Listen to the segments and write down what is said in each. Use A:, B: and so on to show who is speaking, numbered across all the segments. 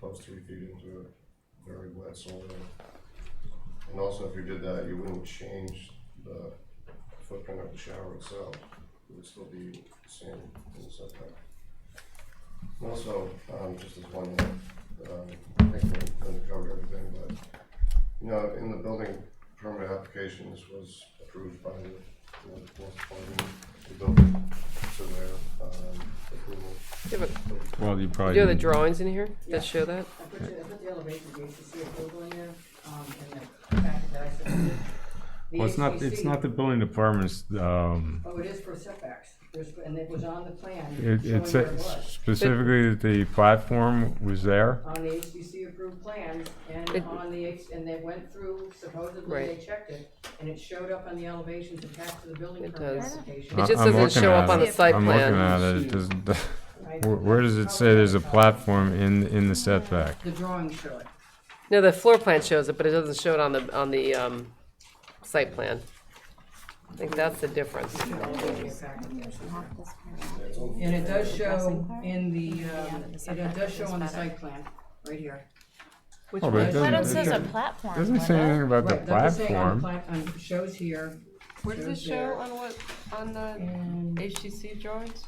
A: those three feet into it, very wet soil. And also, if you did that, you wouldn't change the footprint of the shower itself, it would still be the same in the setback. And Also, um, just as one, um, I think we're gonna cover everything, but, you know, in the building permit application, this was approved by the, you know, the fourth party, the building surveyor, um, approval.
B: Yeah, but
C: Well, you
B: do
C: probably.
B: you have the drawings in here
D: Yeah.
B: that show that?
D: I put, you- I put the elevation, the HCC approval in there, um, in the packet that I submitted. The
C: Well, it's not, it's
D: HCC
C: not the building department's, um,
D: Oh, it is for setbacks, there's, and it was on the plan,
C: it,
D: showing
C: it's
D: where it was.
C: specifically that the platform was there.
D: On the HCC approved plans and
B: It-
D: on the, H- and they went through, supposedly they
B: Right.
D: checked it, and it showed up on the elevations attached to the building
B: It
D: permit
B: does.
D: application.
B: It just
C: I'm
B: doesn't
C: looking
B: show up
C: at
B: on the
C: it.
B: site
C: I'm looking
B: plan.
C: at it, it doesn't,
D: I-
C: where, where does it say there's a platform in, in the setback?
D: The drawing showed it.
B: No, the floor plan shows it, but it doesn't show it on the, on the, um, site plan. I think that's the difference.
D: The elevation packet there, so-
E: This part.
D: And it does show
E: Dressing part?
D: in the, um,
E: the
D: it
E: setback
D: does show
E: is
D: on the
E: better.
D: site plan, right here.
B: Which
C: Oh, but it
B: one?
C: doesn't-
E: But it
C: it
E: says a
C: doesn't-
E: platform.
C: Doesn't say
E: Linda.
C: anything about the
D: Right, that's what I'm saying on the
C: platform.
D: plat- on- Shows here.
B: Where does it
D: shows
B: show
D: there,
B: on what, on the
D: and-
B: HCC drawings?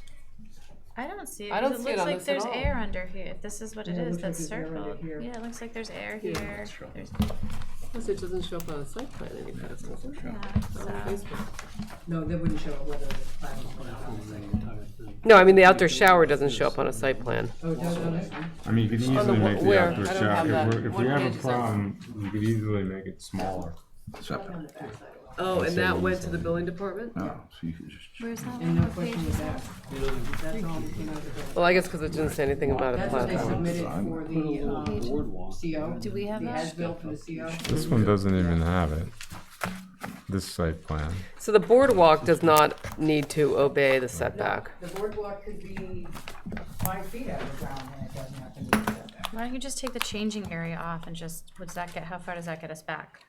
E: I don't see it.
B: I
E: 'cause
B: don't see it
E: looks
B: on
E: like
B: this at
E: there's
B: all.
E: air under here. If this is what it
D: Yeah, it
E: is,
D: looks like
E: that's
D: there's air under
E: circled.
D: here.
E: Yeah, it looks like there's air
B: Yeah.
E: here. There's,
B: Plus, it doesn't show up on the site plan any faster. does it?
E: yeah,
B: On
E: so.
B: Facebook.
D: No, that wouldn't show whether it's platform or not on the site plan.
B: No, I mean, the outdoor shower doesn't show up on a site plan.
D: Oh, it does on this one?
C: I mean, you could
B: the
C: easily
B: wh-
C: make the
B: where?
C: outdoor
B: I don't
C: shot,
B: have
C: if
B: that.
C: we're- if
B: What
C: we have
B: page
C: a
B: is that?
C: problem, you could easily make it smaller.
D: Right on the backside of the wall.
B: Oh, and that went to the building department?
F: Oh, so you could just.
E: Where's that
D: And
E: one?
D: no
E: What page
D: question
E: is
D: with
E: that?
D: that. That's all, you know, the-
B: Well, I guess because it didn't say anything about a
D: that's what they
B: platform.
D: submitted for the, um, CO.
E: Do we have
D: The
E: that?
D: as-built for the CO.
C: This one doesn't even have it, this site plan.
B: So the boardwalk does not need to obey the setback.
D: The boardwalk could be five feet out of the ground and it doesn't have to meet the setback.
E: Why don't you just take the changing area off and just, what's that get, how far does that get us back?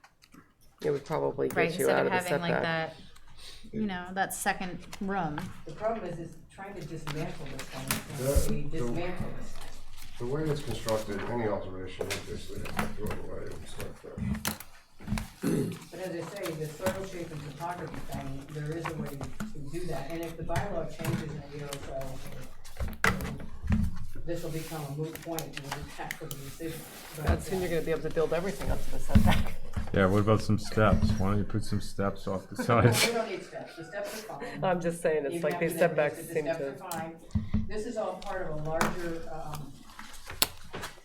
B: It would probably
E: Right,
B: get you
E: instead
B: out
E: of
B: of the
E: having like
B: setback.
E: that, you know, that second room.
D: The problem is, is trying to dismantle this
A: Yeah,
D: thing, we dismantle this thing.
A: The way it's constructed, any alteration, is basically, throw it away and stuff there.
D: But as I say, the circle shape and topography thing, there is a way to do that, and if the bylaw changes in a year or so, this will become a moot point, and we'll be back for the decision. But,
B: That's when you're gonna be able to build everything up to the setback.
C: Yeah, what about some steps? Why don't you put some steps off the
D: uh,
C: sides?
D: We don't need steps, the steps are fine.
B: I'm just saying,
D: Even
B: it's like
D: after
B: these
D: that,
B: setbacks
D: the
B: seem
D: steps
B: to.
D: are fine. This is all part of a larger, um,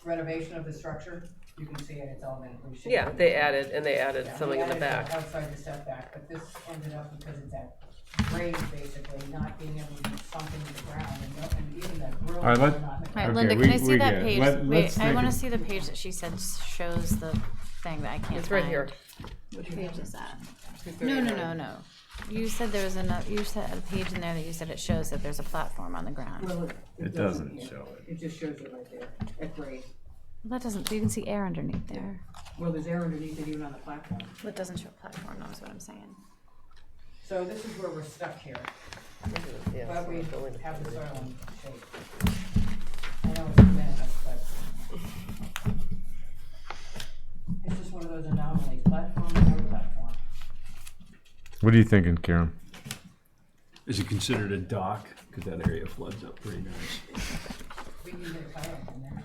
D: renovation of the structure, you can see it, it's all been reshaped.
B: Yeah, they added, and they added
D: Yeah,
B: something
D: we
B: in the
D: added that
B: back.
D: Outside the setback, but this ended up because it's that grade basically, not being able to do something to the ground and no- and even that grill.
C: All right, let-
D: will not-
E: All right,
C: Okay,
E: Linda,
C: we-
E: can I see
C: we
E: that
C: get it.
E: page?
C: Let-
E: Wait,
C: let's
E: I
C: take
E: wanna
C: it.
E: see the page that she said shows the thing that I can't find.
B: It's right here.
E: Which page is that? No, no, no, no. You said there was another, you said a page in there that you said it shows that there's a platform on the ground.
D: Well, it-
C: It doesn't
D: here.
C: show it.
D: It just shows it right there, at grade.
E: That doesn't, you can see air underneath there.
D: Well, there's air underneath it even on the platform.
E: That doesn't show a platform, that's what I'm saying.
D: So this is where we're stuck here,
B: Yeah,
D: but
B: so
D: we
B: it's building
D: have the
B: department.
D: soil and shape. I know it's meant, but. It's just one of those anomalies, platform, no platform.
C: What are you thinking, Karen?
F: Is it considered a dock? Because that area floods up pretty nice.
D: We can get a kayak in there.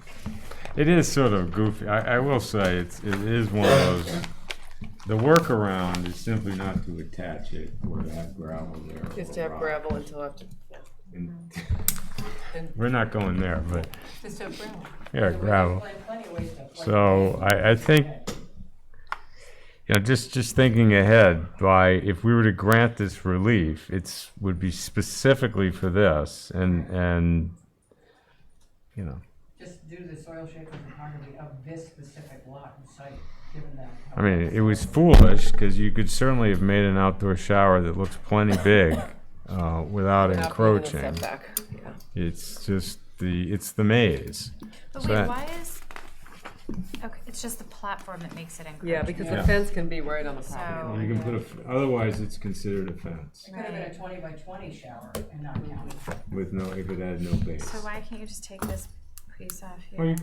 C: It is sort of goofy. I, I will say it's it is one of those. The workaround is simply not to attach it or to have gravel there. or
B: Just to have
C: rock.
B: gravel until after, yeah.
C: And- We're not going there, but
B: Just to have gravel.
C: yeah, gravel.
D: Plenty- plenty of ways to play.
C: So uh, I, I think, you know, just, just thinking ahead, by, if we were to grant this relief, it's, would be specifically for this and, and, you know,
D: Just do the soil shape and topography of this specific lot and site, given that.
C: I mean, it was foolish, cause you could certainly have made an outdoor shower that looks plenty big, uh, without
B: Not putting in a
C: encroaching.
B: setback, yeah.
C: It's just the, it's the maze.
E: But
C: So
E: wait,
C: that-
E: why is, okay, it's just the platform that makes it encroaching.
B: Yeah, because the
C: Yeah.
B: fence can be right on the property.
E: So,
C: You can put a, otherwise it's considered a fence
D: It could have been a twenty by twenty shower and not counted.
C: with no, if it had no base.
E: so why can't you just take this piece off here?
C: Well, you